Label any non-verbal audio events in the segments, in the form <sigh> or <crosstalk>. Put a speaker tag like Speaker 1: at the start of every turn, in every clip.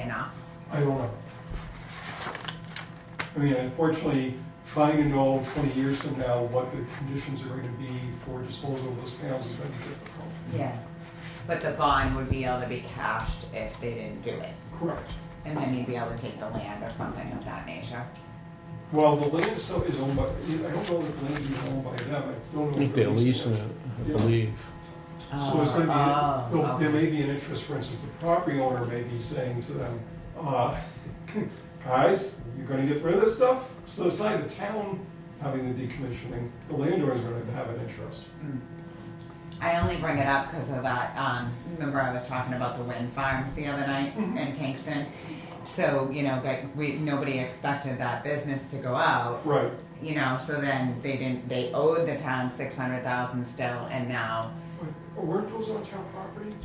Speaker 1: enough?
Speaker 2: I don't know. I mean, unfortunately, trying to know twenty years from now what the conditions are going to be for disposal of those panels is gonna be difficult.
Speaker 1: Yeah. But the bond would be able to be cashed if they didn't do it,
Speaker 2: Correct.
Speaker 1: and then you'd be able to take the land or something of that nature.
Speaker 2: Well, the land itself is owned by, I don't know if the land is owned by them, I don't
Speaker 3: I
Speaker 2: know.
Speaker 3: think
Speaker 2: if they're
Speaker 3: they're leasing
Speaker 2: it.
Speaker 3: it, I believe.
Speaker 2: So it's
Speaker 1: Oh,
Speaker 2: gonna be,
Speaker 1: oh,
Speaker 2: well, there
Speaker 1: okay.
Speaker 2: may be an interest, for instance, the property owner may be saying to them, uh, <laughs> guys, you're gonna get rid of this stuff? So aside the town having the decommissioning, the landowner's gonna have an interest.
Speaker 1: Mm. I only bring it up because of that, um, remember I was talking about the wind farms the other night
Speaker 2: Mm-hmm.
Speaker 1: in Kingston? So, you know, but we, nobody expected that business to go out,
Speaker 2: Right,
Speaker 1: you know, so then they didn't, they owed the town six hundred thousand still, and now
Speaker 2: Wait, Weren't those on town property?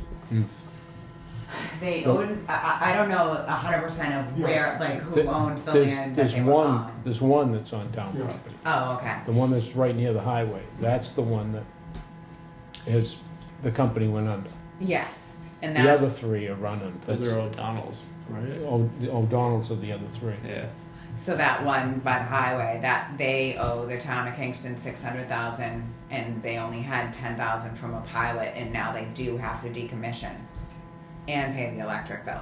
Speaker 1: They
Speaker 3: Oh.
Speaker 1: own, I- I, I don't know a hundred percent of
Speaker 2: Yeah.
Speaker 1: where, like, who
Speaker 3: Th-
Speaker 1: owns the
Speaker 3: there's-
Speaker 1: land that
Speaker 3: there's
Speaker 1: they were
Speaker 3: one-
Speaker 1: on.
Speaker 3: There's one that's on town
Speaker 2: Yeah.
Speaker 3: property,
Speaker 1: Oh, okay,
Speaker 3: the one that's right near the highway, that's the one that is, the company went under.
Speaker 1: yes, and
Speaker 3: The other
Speaker 1: that's,
Speaker 3: three are running,
Speaker 4: Those
Speaker 3: That's-
Speaker 4: are O'Donnell's, right?
Speaker 3: O- the O'Donnell's are the other three.
Speaker 4: Yeah.
Speaker 1: so that one by the highway, that they owe the town of Kingston six hundred thousand, and they only had ten thousand from a pilot, and now they do have to decommission and pay the electric bill.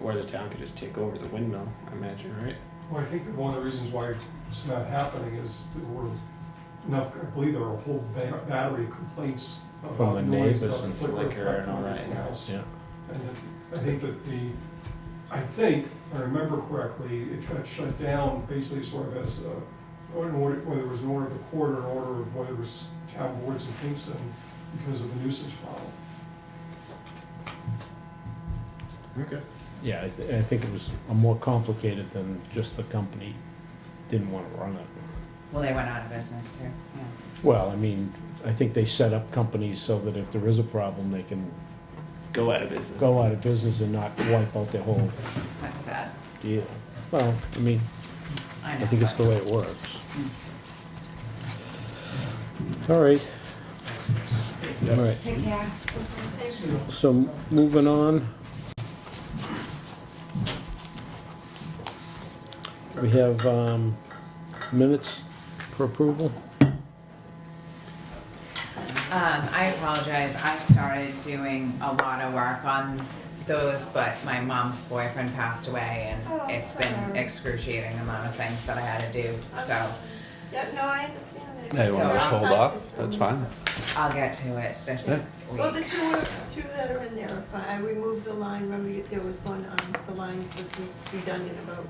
Speaker 4: Or the town could just take over the windmill, I imagine, right?
Speaker 2: Well, I think that one of the reasons why it's not happening is there were enough, I believe there were a whole ba- battery of complaints
Speaker 3: From
Speaker 2: about
Speaker 3: the
Speaker 2: noise,
Speaker 3: neighbors
Speaker 2: about
Speaker 3: and
Speaker 2: flicker
Speaker 4: flicker and
Speaker 2: effect
Speaker 4: all
Speaker 2: and
Speaker 4: that,
Speaker 2: everything
Speaker 4: yeah.
Speaker 2: else.
Speaker 3: Yeah,
Speaker 2: And it- I think that the, I think, if I remember correctly, it got shut down basically sort of as, uh, an order, whether it was an order of the court or an order of whether it was town boards in Kingston because of the nuisance problem.
Speaker 4: Okay.
Speaker 3: yeah, I, th- I think it was a more complicated than just the company didn't wanna run it.
Speaker 1: Well, they went out of business too, yeah.
Speaker 3: Well, I mean, I think they set up companies so that if there is a problem, they can
Speaker 4: Go out of business.
Speaker 3: go out of business and not wipe out their whole
Speaker 1: That's sad,
Speaker 3: deal. Well, I mean,
Speaker 1: I know.
Speaker 3: I think it's the way it works. All right. All right,
Speaker 1: Take care.
Speaker 3: so moving on. We have um, minutes for approval.
Speaker 1: Um, I apologize, I started doing a lot of work on those, but my mom's boyfriend passed away
Speaker 5: Oh,
Speaker 1: and it's been
Speaker 5: sorry.
Speaker 1: excruciating amount of things that I had to do, so
Speaker 5: Yeah, no, I understand.
Speaker 1: Yeah,
Speaker 5: it.
Speaker 1: you wanna just
Speaker 5: So-
Speaker 1: hold
Speaker 4: fine.
Speaker 1: I'll get to it this
Speaker 4: Yeah.
Speaker 5: Well,
Speaker 1: week.
Speaker 5: the two, are- two that are in there, are fine. I removed the line, remember you- there was one, um, the line was re- redundant about,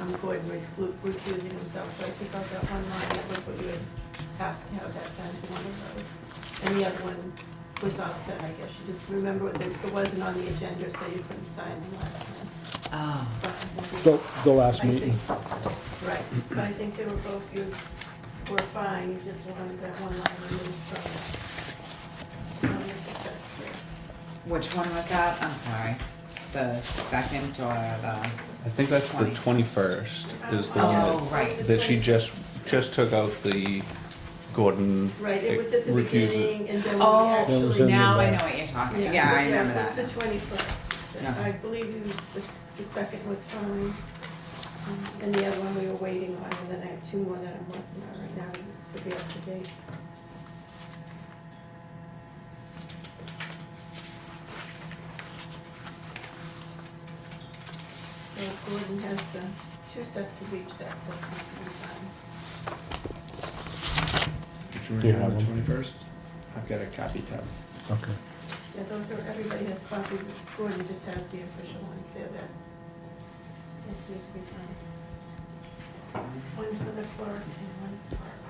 Speaker 5: um, Gordon Rich recusing himself, so I took out that one line, that was what you had asked to have that done, to one of those. And the other one was offset, I guess, you just remember that it wasn't on the agenda, so you couldn't sign the last one.
Speaker 1: Oh,
Speaker 5: But I think it-
Speaker 3: The the
Speaker 5: I
Speaker 3: last
Speaker 5: think-
Speaker 3: meeting.
Speaker 5: Right, so I think they were both, you were fine, you just wanted that one line removed from. from the success here.
Speaker 1: which one was that? I'm sorry, the second or the,
Speaker 6: I think that's the 21st is the
Speaker 5: Um,
Speaker 1: oh,
Speaker 6: one
Speaker 1: right,
Speaker 6: that, that she just, just took out the Gordon.
Speaker 5: Right, it was at the
Speaker 6: recusal.
Speaker 5: beginning and then
Speaker 1: Oh,
Speaker 5: we
Speaker 3: That was
Speaker 5: actually.
Speaker 3: in-
Speaker 1: now I know what you're talking, yeah, I remember
Speaker 5: It was
Speaker 1: that.
Speaker 5: the twenty-first.
Speaker 1: Yeah.
Speaker 5: I believe you, the, the second was fine. Um, And the other one we were waiting on, and then I have two more that I'm working on right now to be up to date. So Gordon has the two sets of each that that can be signed.
Speaker 3: Do you have one?
Speaker 4: Twenty-first? I've got a copy tab.
Speaker 3: Okay.
Speaker 5: Yeah, those are, everybody has copies, Gordon just has the official ones there that, that need to be signed. One for the clerk and one for